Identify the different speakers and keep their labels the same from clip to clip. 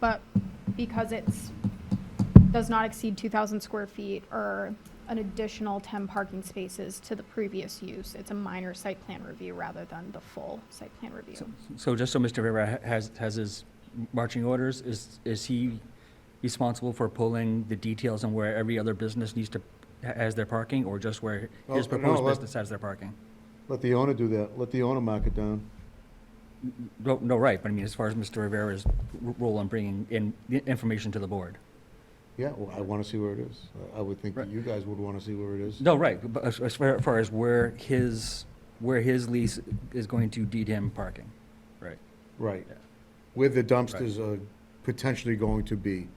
Speaker 1: But because it's, does not exceed 2,000 square feet or an additional 10 parking spaces to the previous use, it's a minor site plan review rather than the full site plan review.
Speaker 2: So just so Mr. Rivera ha- has, has his marching orders, is, is he responsible for pulling the details on where every other business needs to, ha- has their parking, or just where
Speaker 3: Well,
Speaker 2: his
Speaker 3: no,
Speaker 2: proposed
Speaker 3: let-
Speaker 2: business has their parking?
Speaker 3: Let the owner do that. Let the owner mark it down.
Speaker 2: No, no, right, but I mean, as far as Mr. Rivera's r- role in bringing in the information to the board.
Speaker 3: Yeah, well, I want to see where it is. I I would think that
Speaker 2: Right.
Speaker 3: you guys would want to see where it is.
Speaker 2: No, right, but as, as far as far as where his, where his lease is going to deed him parking, right?
Speaker 3: Right.
Speaker 2: Yeah.
Speaker 3: Where the dumpsters are potentially going to be.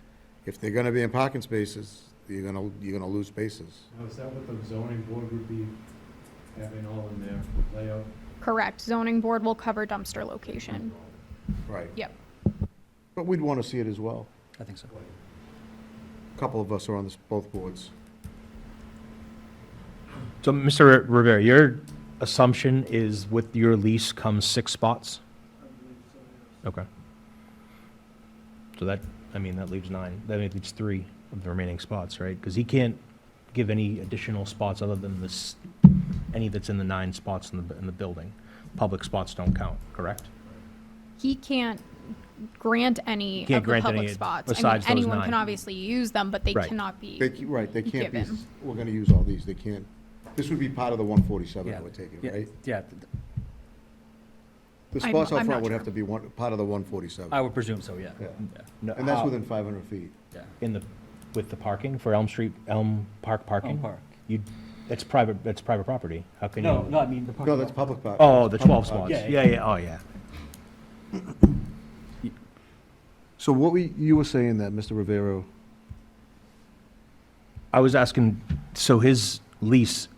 Speaker 3: If they're going to be in parking spaces, you're going to, you're going to lose spaces.
Speaker 4: Now, is that what the zoning board would be having all in their layout?
Speaker 1: Correct, zoning board will cover dumpster location.
Speaker 3: Right.
Speaker 1: Yep.
Speaker 3: But we'd want to see it as well.
Speaker 2: I think so.
Speaker 3: A Couple of us are on this, both boards.
Speaker 5: So, Mr. Rivera, your assumption is with your lease comes six spots? Okay. So that, I mean, that leaves nine, that leaves three of the remaining spots, right? Because he can't give any additional spots other than this, any that's in the nine spots in the, in the building. Public spots don't count, correct?
Speaker 1: He can't grant any
Speaker 5: Can't
Speaker 1: of the
Speaker 5: grant any
Speaker 1: public spots. I mean,
Speaker 5: besides those
Speaker 1: Anyone can
Speaker 5: nine.
Speaker 1: obviously use them, but they
Speaker 5: Right.
Speaker 1: cannot be.
Speaker 3: They, ca- right, they can't be,
Speaker 1: Given.
Speaker 3: we're going to use all these. They can't. This would be part of the 147, I
Speaker 2: Yeah,
Speaker 3: would take it,
Speaker 2: yeah,
Speaker 3: right?
Speaker 2: Yeah, th-
Speaker 3: The
Speaker 1: I'm-
Speaker 3: spots out
Speaker 1: I'm
Speaker 3: front
Speaker 1: not
Speaker 3: would
Speaker 1: sure.
Speaker 3: have to be one, part of the 147.
Speaker 2: I uh, would presume so, yeah.
Speaker 3: Yeah.
Speaker 2: Yeah,
Speaker 5: No,
Speaker 3: And that's
Speaker 5: how-
Speaker 3: within 500 feet.
Speaker 2: yeah.
Speaker 5: In the, with the parking for Elm Street, Elm Park parking?
Speaker 2: Oh, Park.
Speaker 5: You, that's private, that's private property. How can you?
Speaker 2: No, no, I mean, the parking.
Speaker 3: No, that's public park.
Speaker 5: Oh, the
Speaker 3: Public park.
Speaker 5: 12 spots.
Speaker 2: Yeah,
Speaker 5: Yeah,
Speaker 2: yeah.
Speaker 5: yeah, oh, yeah.
Speaker 3: So what we, you were saying that, Mr. Rivero,
Speaker 5: I was asking, so his lease,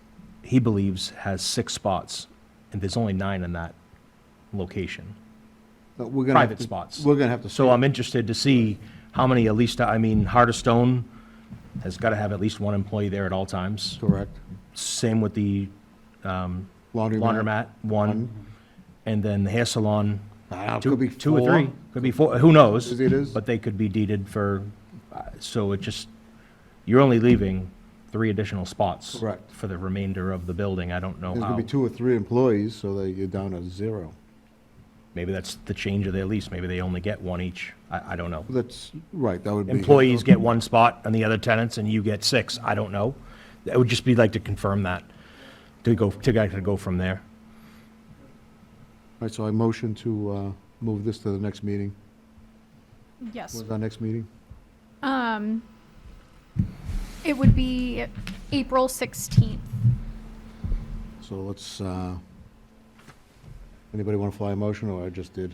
Speaker 5: he believes, has six spots, and there's only nine in that location,
Speaker 3: that we're gonna. have
Speaker 5: private
Speaker 3: to-
Speaker 5: spots.
Speaker 3: We're gonna have to.
Speaker 5: So I'm interested to see how many, at least, I mean, Heart of Stone has got to have at least one employee there at all times.
Speaker 3: Correct.
Speaker 5: Same with the
Speaker 3: Laundry.
Speaker 5: laundromat, one. And then the hair salon,
Speaker 3: Ah,
Speaker 5: two,
Speaker 3: could be
Speaker 5: two or
Speaker 3: four.
Speaker 5: three. Could be four, who knows?
Speaker 3: It is.
Speaker 5: But they could be deeded for, uh, so it just, you're only leaving three additional spots.
Speaker 3: Correct.
Speaker 5: For the remainder of the building. I don't know
Speaker 3: There's gonna
Speaker 5: how.
Speaker 3: be two or three employees, so that you're down to zero.
Speaker 5: Maybe that's the change of their lease. Maybe they only get one each. I, I don't know.
Speaker 3: That's, right, that would be.
Speaker 5: Employees get one spot and the other tenants and you get six. I don't know. It would just be like to confirm that, to go, to go- to go from there.
Speaker 3: Right, so I motion to, uh, move this to the next meeting.
Speaker 1: Yes.
Speaker 3: When's our next meeting?
Speaker 1: Um, it would be April 16th.
Speaker 3: So let's, uh, anybody wanna fly a motion, or I just did?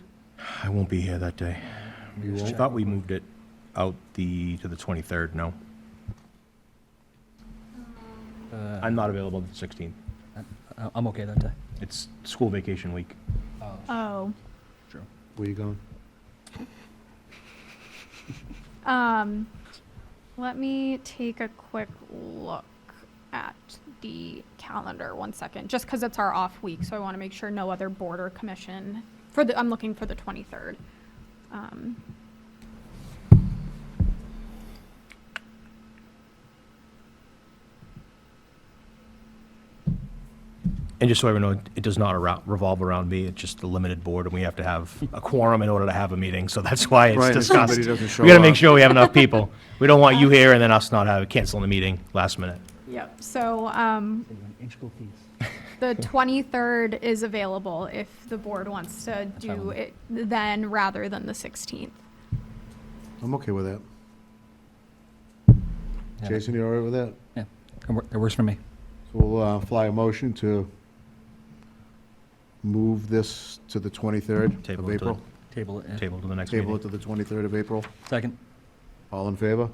Speaker 5: I won't be here that day.
Speaker 3: You
Speaker 5: I
Speaker 3: won't?
Speaker 5: thought we moved it out the, to the 23rd, no?
Speaker 2: Uh,
Speaker 5: I'm not available the 16th.
Speaker 2: I- Uh, I'm okay that day.
Speaker 5: It's school vacation week.
Speaker 1: Oh.
Speaker 2: True.
Speaker 3: Where you going?
Speaker 1: Um, let me take a quick look at the calendar, one second, just because it's our off week, so I want to make sure no other board or commission, for the, I'm looking for the 23rd. Um,
Speaker 5: And just so everyone know, it does not arou- revolve around me, it's just a limited board, and we have to have a quorum in order to have a meeting, so that's why
Speaker 3: Right,
Speaker 5: it's
Speaker 3: if
Speaker 5: discussed.
Speaker 3: somebody doesn't
Speaker 5: We gotta
Speaker 3: show
Speaker 5: make
Speaker 3: up.
Speaker 5: sure we have enough people. We don't want you here and then us not have, canceling the meeting last minute.
Speaker 1: Yep, so, um, the 23rd is available if the board wants to
Speaker 2: fine
Speaker 1: do
Speaker 2: with
Speaker 1: it then rather than the 16th.
Speaker 3: I'm okay with that.
Speaker 2: Yeah.
Speaker 3: Jason, you all right with that?
Speaker 2: Yeah, it wor- it works for me.
Speaker 3: So we'll uh, fly a motion to move this to the 23rd
Speaker 5: Table
Speaker 3: of
Speaker 5: it to
Speaker 3: April.
Speaker 2: Table it.
Speaker 5: Table to the next
Speaker 3: Table it
Speaker 5: meeting.
Speaker 3: to the 23rd of April.
Speaker 2: Second.
Speaker 3: All in favor?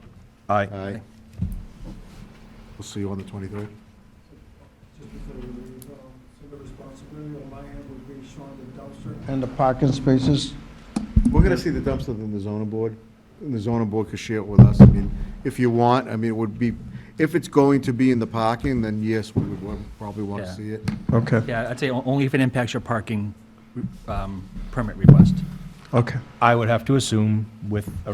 Speaker 5: Aye.
Speaker 3: Aye. We'll see you on the 23rd.
Speaker 6: Just before we leave, um, so the responsibility on my end would be showing the dumpster.
Speaker 7: and the parking spaces.
Speaker 3: We're going to see the dumpster in the zoning board, and the zoning board can share it with us. I mean, if you want, I mean, it would be, if it's going to be in the parking, then yes, we would wa- probably want to
Speaker 2: Yeah.
Speaker 3: see it.
Speaker 7: Okay,
Speaker 2: Yeah, I'd say o- only if it impacts your parking um, permit request.
Speaker 7: okay.
Speaker 5: I would have to assume with a